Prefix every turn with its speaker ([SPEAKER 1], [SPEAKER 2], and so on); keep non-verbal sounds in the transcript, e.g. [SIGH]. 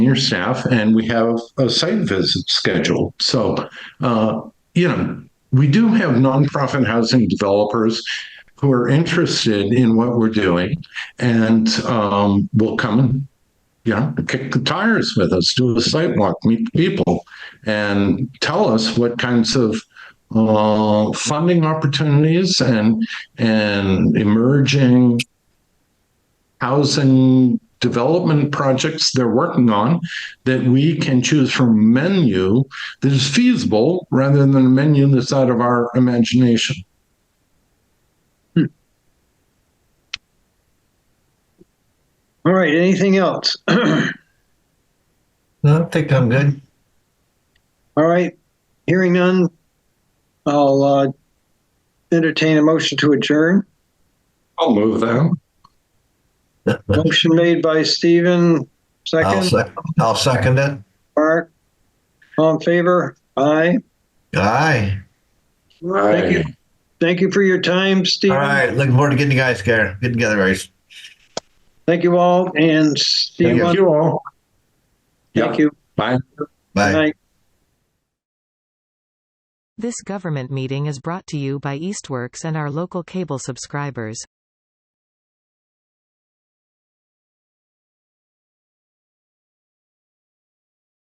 [SPEAKER 1] your staff, and we have a site visit scheduled. So, uh, you know, we do have nonprofit housing developers who are interested in what we're doing and um, will come and, you know, kick the tires with us, do a site walk, meet people, and tell us what kinds of uh, funding opportunities and and emerging housing development projects they're working on that we can choose from a menu that is feasible rather than a menu that's out of our imagination.
[SPEAKER 2] All right, anything else? [CLEARS THROAT] All
[SPEAKER 3] No, I think I'm good.
[SPEAKER 2] right, hearing none, I'll uh, entertain a motion to adjourn.
[SPEAKER 1] I'll move that.
[SPEAKER 2] Motion made by Stephen,
[SPEAKER 3] I'll
[SPEAKER 2] second,
[SPEAKER 3] second, I'll second it.
[SPEAKER 2] Mark, all in favor? Aye.
[SPEAKER 3] Aye.
[SPEAKER 2] Thank you. Thank you for your time,
[SPEAKER 3] All
[SPEAKER 2] Stephen.
[SPEAKER 3] right. Looking forward to getting you guys together, getting together, guys.
[SPEAKER 2] Thank you all, and Steve,
[SPEAKER 1] Thank you all.
[SPEAKER 2] thank you.
[SPEAKER 1] Bye.
[SPEAKER 3] Bye.
[SPEAKER 2] Good night.
[SPEAKER 4] This government meeting is brought to you by Eastworks and our local cable subscribers.